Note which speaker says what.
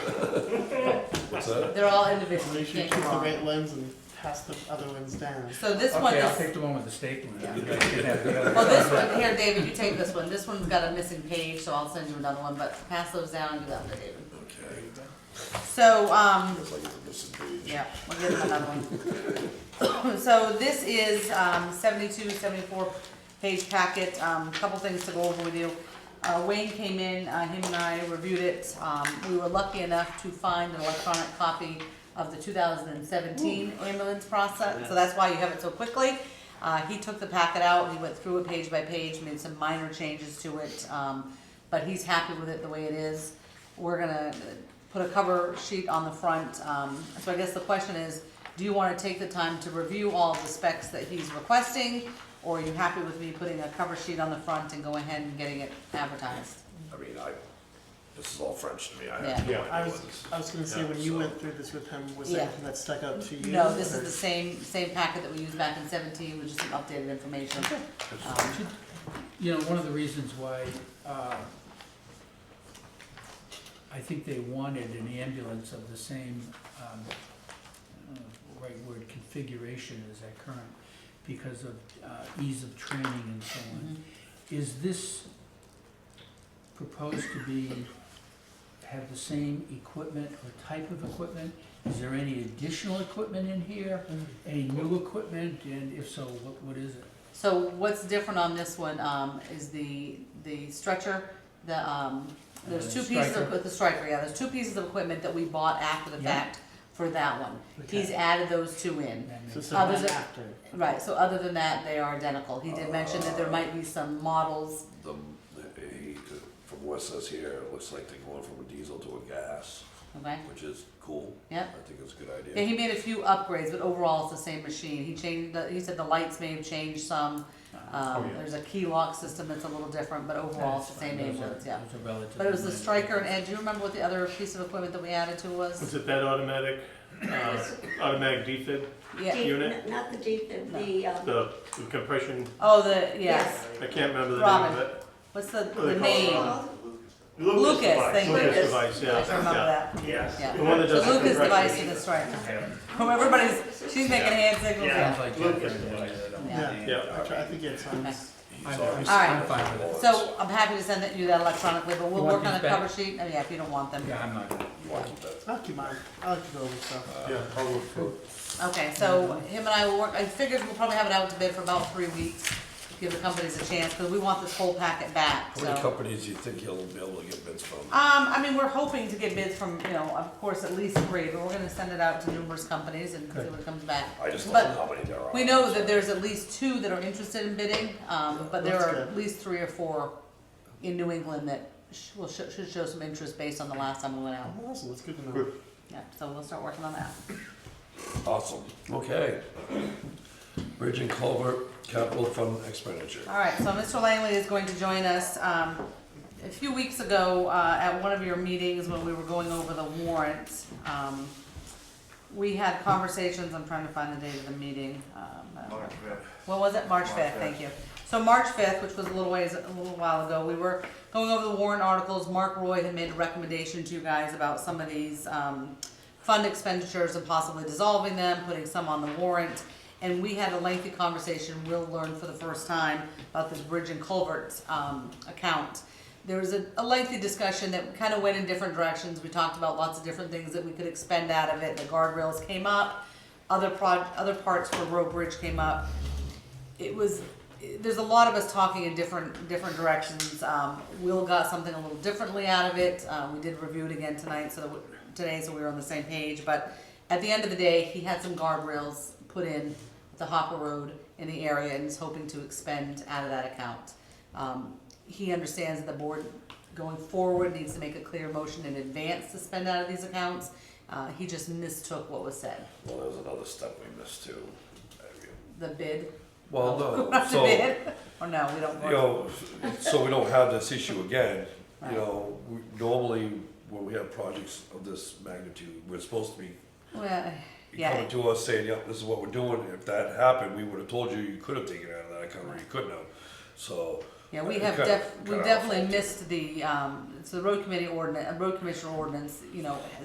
Speaker 1: that.
Speaker 2: They're all
Speaker 3: Make
Speaker 2: individually
Speaker 3: sure you
Speaker 2: stamped
Speaker 3: keep the
Speaker 2: wrong.
Speaker 3: right lens and pass the other ones down.
Speaker 2: So this one
Speaker 4: Okay, I'll
Speaker 2: is,
Speaker 4: take the one with the staple in
Speaker 2: Yeah.
Speaker 4: it. I can have the other
Speaker 2: well, this
Speaker 4: one.
Speaker 2: one, here, David, you take this one. This one's got a missing page, so I'll send you another one, but pass those down and do that for David.
Speaker 1: Okay.
Speaker 2: So, um,
Speaker 1: It's like it's a missing page.
Speaker 2: yeah, we'll get him another one. So this is, um, 72, 74 page packet, um, a couple things to go over with you. Uh, Wayne came in, uh, him and I reviewed it. Um, we were lucky enough to find an electronic copy of the two thousand and seventeen ambulance process, so that's why you have it so quickly. Uh, he took the packet out, he went through it page by page, made some minor changes to it, um, but he's happy with it the way it is. We're gonna put a cover sheet on the front, um, so I guess the question is, do you wanna take the time to review all of the specs that he's requesting? Or are you happy with me putting a cover sheet on the front and go ahead and getting it advertised?
Speaker 1: I mean, I, this is all French to me, I
Speaker 2: Yeah.
Speaker 1: have no
Speaker 3: Yeah, I
Speaker 1: idea
Speaker 3: was,
Speaker 1: what this.
Speaker 3: I was gonna say,
Speaker 1: Yeah,
Speaker 3: when you
Speaker 1: so-
Speaker 3: went through this with him, was
Speaker 2: Yeah.
Speaker 3: there anything that stuck out to you?
Speaker 2: No, this
Speaker 3: or-
Speaker 2: is the same, same packet that we used back in seventeen, with just some updated information. Um,
Speaker 4: You know, one of the reasons why, uh, I think they wanted an ambulance of the same, um, I don't know if the right word, configuration as that current, because of, uh, ease of training and so on. Is this proposed to be, have the same equipment or type of equipment? Is there any additional equipment in here, any new equipment, and if so, what, what is it?
Speaker 2: So what's different on this one, um, is the, the stretcher, the, um, there's two
Speaker 4: Uh,
Speaker 2: pieces of,
Speaker 4: striker.
Speaker 2: with the striker, yeah, there's two pieces of equipment that we bought after the
Speaker 4: Yeah.
Speaker 2: fact for that one. He's
Speaker 3: Okay.
Speaker 2: added those two in.
Speaker 4: That
Speaker 3: So
Speaker 4: makes-
Speaker 3: some
Speaker 2: Others are-
Speaker 3: after.
Speaker 2: Right, so other than that, they are identical. He did mention that there might be some models,
Speaker 1: The, the- he, from what it says here, it looks like they're going from a diesel to a gas,
Speaker 2: okay?
Speaker 1: which is cool.
Speaker 2: Yeah.
Speaker 1: I think it's a good
Speaker 2: Yeah,
Speaker 1: idea.
Speaker 2: he made a few upgrades, but overall it's the same machine. He changed, the- he said the lights may have changed some.
Speaker 4: Oh,
Speaker 2: Um, there's a key lock system that's a little different, but overall it's the
Speaker 4: That's
Speaker 2: same
Speaker 4: fine. Those are-
Speaker 2: ambulance, yeah.
Speaker 4: those are relatively
Speaker 2: But it was the
Speaker 4: minor.
Speaker 2: striker and Ed, do you remember what the other piece of equipment that we added to
Speaker 5: Was
Speaker 2: was?
Speaker 5: it that automatic, uh, automatic defib,
Speaker 2: Yeah,
Speaker 5: unit?
Speaker 6: Deep- Not the deep, the, the, um,
Speaker 5: the uh, the compression?
Speaker 2: oh, the, yes,
Speaker 5: I can't remember the name of it.
Speaker 2: what's the,
Speaker 5: Oh, they
Speaker 2: the
Speaker 5: call it
Speaker 2: name?
Speaker 5: Robin.
Speaker 2: I Lucas,
Speaker 5: Lucas
Speaker 2: thank
Speaker 5: device,
Speaker 2: you.
Speaker 5: Lucas
Speaker 2: Lucas.
Speaker 5: device,
Speaker 2: should remember
Speaker 5: yeah.
Speaker 2: that,
Speaker 5: Yes.
Speaker 2: yeah.
Speaker 5: The one that
Speaker 2: So
Speaker 5: does the
Speaker 2: Lucas device
Speaker 5: compression.
Speaker 2: and the striker. Everybody's, she's making hand signals,
Speaker 4: Sounds
Speaker 2: yeah.
Speaker 4: like
Speaker 5: Lucas
Speaker 4: different
Speaker 5: device.
Speaker 4: than-
Speaker 3: Yeah,
Speaker 5: Yeah.
Speaker 3: I try- I think it's on.
Speaker 2: Okay.
Speaker 1: He's
Speaker 4: I'm-
Speaker 1: already-
Speaker 2: I'm
Speaker 4: fine with it.
Speaker 2: So I'm happy to send that you that electronically, but we'll
Speaker 4: You want
Speaker 2: work on a
Speaker 4: these back?
Speaker 2: cover sheet, oh yeah, if you don't want them.
Speaker 4: Yeah, I'm not gonna.
Speaker 1: You wanna keep that?
Speaker 3: I'll keep mine, I'll keep over
Speaker 1: Uh,
Speaker 3: stuff.
Speaker 5: Yeah, I'll look for it.
Speaker 2: Okay, so him and I will work, I figured we'll probably have it out to bid for about three weeks, give the companies a chance, because we want this whole packet back,
Speaker 1: How
Speaker 2: so.
Speaker 1: many
Speaker 2: Um,
Speaker 1: companies do you think you'll be able to get bids from?
Speaker 2: I mean, we're hoping to get bids from, you know, of course, at least three, but we're gonna send it out to numerous companies and see what comes back.
Speaker 1: I just
Speaker 2: But
Speaker 1: don't know how many there are.
Speaker 2: We know that there's at least two that are interested in bidding, um, but there
Speaker 3: That's
Speaker 2: are
Speaker 3: good.
Speaker 2: at least three or four in New England that sh- will, sh- should show some interest based on the last time we went out.
Speaker 3: Awesome, that's good to know.
Speaker 5: Good.
Speaker 2: Yeah, so we'll start working on that.
Speaker 1: Awesome, okay. Bridge and culvert capital fund expenditure.
Speaker 2: All right, so Mr. Langley is going to join us. Um, A few weeks ago, uh, at one of your meetings when we were going over the warrant, um, we had conversations, I'm trying to find the date of the meeting. um, I don't know. What was it? March fifth, thank you. So March fifth, which was a little ways, a little while ago, we were going over the warrant articles. Mark Roy had made a recommendation to you guys about some of these, um, fund expenditures and possibly dissolving them, putting some on the warrant. And we had a lengthy conversation, we'll learn for the first time about this bridge and culvert, um, account. There was a, a lengthy discussion that kind of went in different directions. We talked about lots of different things that we could expend out of it. The guardrails came up, other prod, other parts for road bridge came up it was there's a lot of us talking in different different directions. Um, Will got something a little differently out of it. Uh, we did review it again tonight, so that we, today, so we were on the same page. But at the end of the day, he had some guardrails put in the Hopper Road in the area, and is hoping to expend out of that account. Um, he understands that the board going forward needs to make a clear motion in advance to spend out of these accounts. Uh, he just mistook what was said.
Speaker 1: Well, there's another step we missed too.
Speaker 2: The bid,
Speaker 1: Well, no,
Speaker 2: not the
Speaker 1: so,
Speaker 2: bid, or no, we don't.
Speaker 1: you know, so we don't have this issue again, you know, we- normally when we have projects of this magnitude, we're supposed to be
Speaker 2: Well,
Speaker 1: you
Speaker 2: yeah.
Speaker 1: coming to us saying, yep, this is what we're doing, if that happened, we would have told you, you could have taken it out of that account, or you couldn't have, so.
Speaker 2: Yeah, we
Speaker 1: uh,
Speaker 2: have
Speaker 1: cut-
Speaker 2: def, we
Speaker 1: cut our-
Speaker 2: definitely missed the, um, so the road committee ordinance, road commissioner ordinance, you know,